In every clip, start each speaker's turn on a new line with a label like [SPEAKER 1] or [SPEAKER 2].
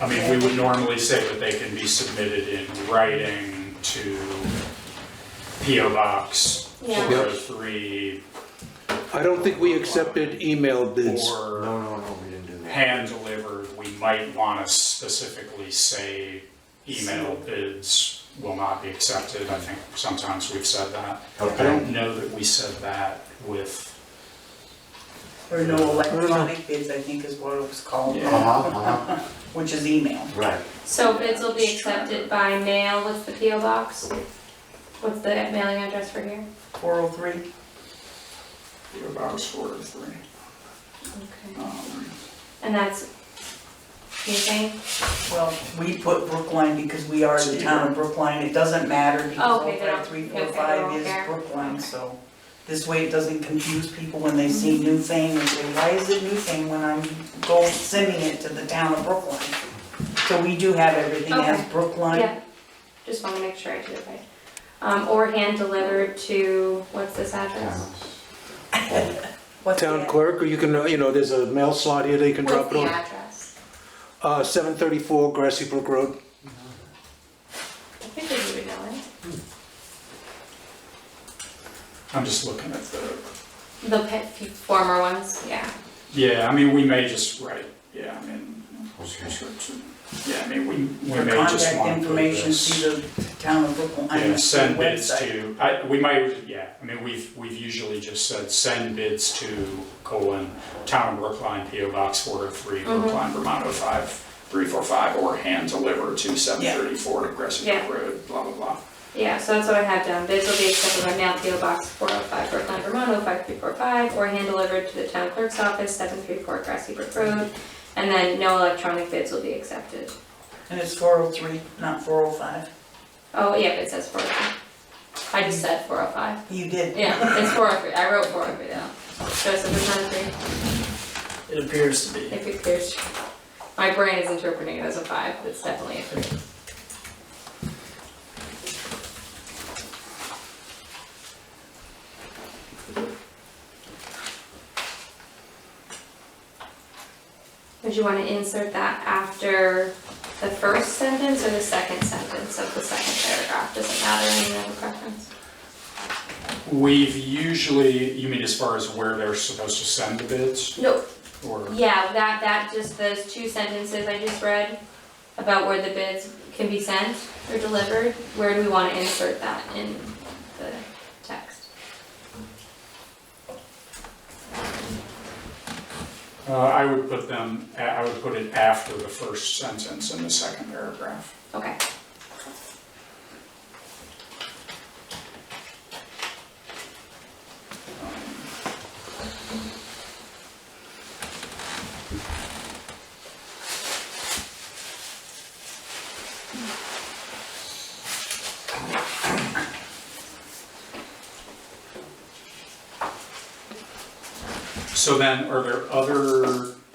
[SPEAKER 1] I mean, we would normally say that they can be submitted in writing to PO Box
[SPEAKER 2] Yeah.
[SPEAKER 1] four oh three
[SPEAKER 3] I don't think we accepted email bids.
[SPEAKER 1] or
[SPEAKER 4] No, no, no, we didn't do that.
[SPEAKER 1] hand delivered. We might want to specifically say email bids will not be accepted. I think sometimes we've said that. I
[SPEAKER 4] Okay,
[SPEAKER 1] don't know that we said that with,
[SPEAKER 5] Or no electronic bids, I think is what it was called,
[SPEAKER 1] Yeah.
[SPEAKER 4] Mm. uh-huh, uh-huh,
[SPEAKER 5] which is email.
[SPEAKER 4] right.
[SPEAKER 2] So bids will be accepted by mail, what's the PO box? What's the mailing address for here?
[SPEAKER 5] Four oh three? Your box four oh three.
[SPEAKER 2] Okay. And that's, you saying?
[SPEAKER 5] Well, we put Brookline because we are the town of Brookline, it doesn't matter because
[SPEAKER 2] Oh, Okay,
[SPEAKER 5] all
[SPEAKER 2] they don't-
[SPEAKER 5] five, three,
[SPEAKER 2] okay,
[SPEAKER 5] four,
[SPEAKER 2] they
[SPEAKER 5] five
[SPEAKER 2] don't
[SPEAKER 5] is
[SPEAKER 2] care.
[SPEAKER 5] Brookline, so. This way it doesn't confuse people when they see New Fame and say, why is it New Fame when I'm go sending it to the town of Brookline? So we do have everything as
[SPEAKER 2] Okay.
[SPEAKER 5] Brookline,
[SPEAKER 2] Yeah, just wanna make sure I do it right. Um, or hand delivered to, what's this address?
[SPEAKER 5] what's that?
[SPEAKER 3] Town clerk, or you can, uh, you know, there's a mail slot here that you can drop
[SPEAKER 2] What's the
[SPEAKER 3] it on.
[SPEAKER 2] address?
[SPEAKER 3] Uh, seven thirty-four Grassy Brook Road.
[SPEAKER 2] I think we would know
[SPEAKER 1] I'm just looking at the,
[SPEAKER 2] it. The pe- former ones, yeah.
[SPEAKER 1] yeah, I mean, we may just write, yeah, I mean,
[SPEAKER 4] Okay.
[SPEAKER 1] yeah, I mean, we, we
[SPEAKER 5] Your
[SPEAKER 1] may just
[SPEAKER 5] contact
[SPEAKER 1] want to put
[SPEAKER 5] information,
[SPEAKER 1] this.
[SPEAKER 5] see the town of Brookline, I mean,
[SPEAKER 1] Yeah, send
[SPEAKER 5] the
[SPEAKER 1] bids to,
[SPEAKER 5] website.
[SPEAKER 1] I, we might, yeah, I mean, we've, we've usually just said, send bids to colon, town of Brookline, PO Box four oh three, Brookline, Vermont, oh five, three four five, or hand deliver to seven thirty-four Aggressive
[SPEAKER 2] Yeah.
[SPEAKER 1] Road, blah, blah, blah.
[SPEAKER 2] Yeah, so that's what I have down. Bids will be accepted by mail, PO Box 405, Brooklyn, Vermont, 05345, or hand delivered to the town clerk's office, 734 Grassy Brook Road. And then no electronic bids will be accepted.
[SPEAKER 5] And it's four oh three, not four oh five.
[SPEAKER 2] Oh, yeah, it says 405. I just said 405.
[SPEAKER 5] You did.
[SPEAKER 2] Yeah, it's 403. I wrote 403 down. Joseph, it's not a three,
[SPEAKER 5] It appears to be.
[SPEAKER 2] if it clears. My brain is interpreting it as a five, but it's definitely a three. Would you want to insert that after the first sentence or the second sentence of the second paragraph? Doesn't matter, any other preference?
[SPEAKER 1] We've usually, you mean as far as where they're supposed to send the bids,
[SPEAKER 2] No,
[SPEAKER 1] or?
[SPEAKER 2] yeah, that, that, just those two sentences I just read about where the bids can be sent or delivered, where do we want to insert that in the text?
[SPEAKER 1] Uh, I would put them, I would put it after the first sentence in the second paragraph.
[SPEAKER 2] Okay.
[SPEAKER 1] So then, are there other,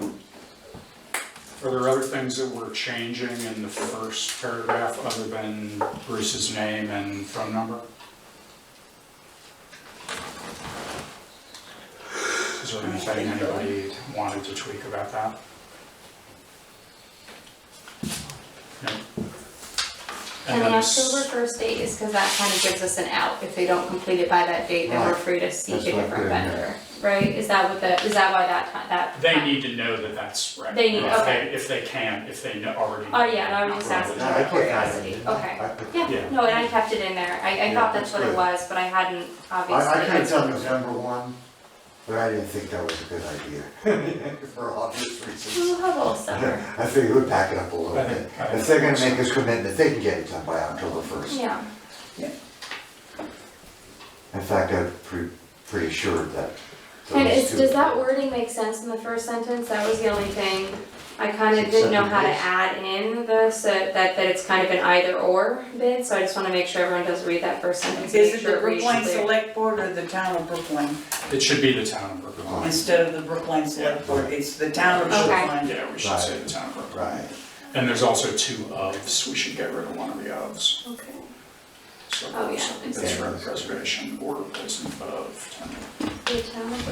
[SPEAKER 1] are there other things that we're changing in the first paragraph other than Bruce's name and phone number? Is there anything anybody wanted to tweak about that? No.
[SPEAKER 2] And the
[SPEAKER 1] then s-
[SPEAKER 2] October first date is because that kind of gives us an out, if they don't complete it by that date, then we're
[SPEAKER 4] Right.
[SPEAKER 2] free to seek
[SPEAKER 4] That's
[SPEAKER 2] a
[SPEAKER 4] what I put
[SPEAKER 2] different
[SPEAKER 4] in there.
[SPEAKER 2] vendor, right? Is that what the, is that why that, ti- that?
[SPEAKER 1] They need to know that that's right.
[SPEAKER 2] They need-
[SPEAKER 1] If
[SPEAKER 2] okay.
[SPEAKER 1] If they can, if they know- already.
[SPEAKER 2] Oh, yeah, no, I'm just
[SPEAKER 1] Right.
[SPEAKER 2] asking
[SPEAKER 4] Yeah, I
[SPEAKER 2] out of
[SPEAKER 4] put that in,
[SPEAKER 2] curiosity,
[SPEAKER 4] didn't I? I
[SPEAKER 2] okay.
[SPEAKER 4] put-
[SPEAKER 1] Yeah.
[SPEAKER 2] Yeah, no, and I kept it in there, I, I
[SPEAKER 4] Yeah,
[SPEAKER 2] thought that's
[SPEAKER 4] that's
[SPEAKER 2] what it
[SPEAKER 4] good.
[SPEAKER 2] was, but I hadn't, obviously.
[SPEAKER 4] I, I could have done November one, but I didn't think that was a good idea, for obvious reasons.
[SPEAKER 2] We'll have all summer.
[SPEAKER 4] I figured we'd pack it up a little
[SPEAKER 1] I
[SPEAKER 4] bit.
[SPEAKER 1] think- I
[SPEAKER 4] If they're gonna
[SPEAKER 1] think
[SPEAKER 4] make us commitment, they can get it done by October first.
[SPEAKER 2] Yeah,
[SPEAKER 4] In fact, I'm pre- pretty sure that.
[SPEAKER 2] and
[SPEAKER 4] those
[SPEAKER 2] is,
[SPEAKER 4] two-
[SPEAKER 2] does that wording make sense in the first sentence? That was the only thing, I kind of didn't know how to
[SPEAKER 4] Second bid.
[SPEAKER 2] add in the, so that, that it's kind of an either or bid, so I just wanna make sure everyone does read that first sentence,
[SPEAKER 5] Is
[SPEAKER 2] make
[SPEAKER 5] it
[SPEAKER 2] sure
[SPEAKER 5] the
[SPEAKER 2] it reads
[SPEAKER 5] Brookline
[SPEAKER 2] clear.
[SPEAKER 5] Select Board or the town of Brookline?
[SPEAKER 1] It should be the town of Brookline.
[SPEAKER 5] Instead of the Brookline Select Board, it's the town of
[SPEAKER 2] Okay.
[SPEAKER 5] Brookline.
[SPEAKER 1] Yeah, we should
[SPEAKER 4] Right.
[SPEAKER 1] say the town of Brookline.
[SPEAKER 4] Right,
[SPEAKER 1] And there's also two ofs, we should get rid of one of the ofs.
[SPEAKER 2] Okay.
[SPEAKER 1] So
[SPEAKER 2] Oh, yeah,
[SPEAKER 1] It's
[SPEAKER 2] exactly.
[SPEAKER 1] for preservation or replacement of.
[SPEAKER 2] The town of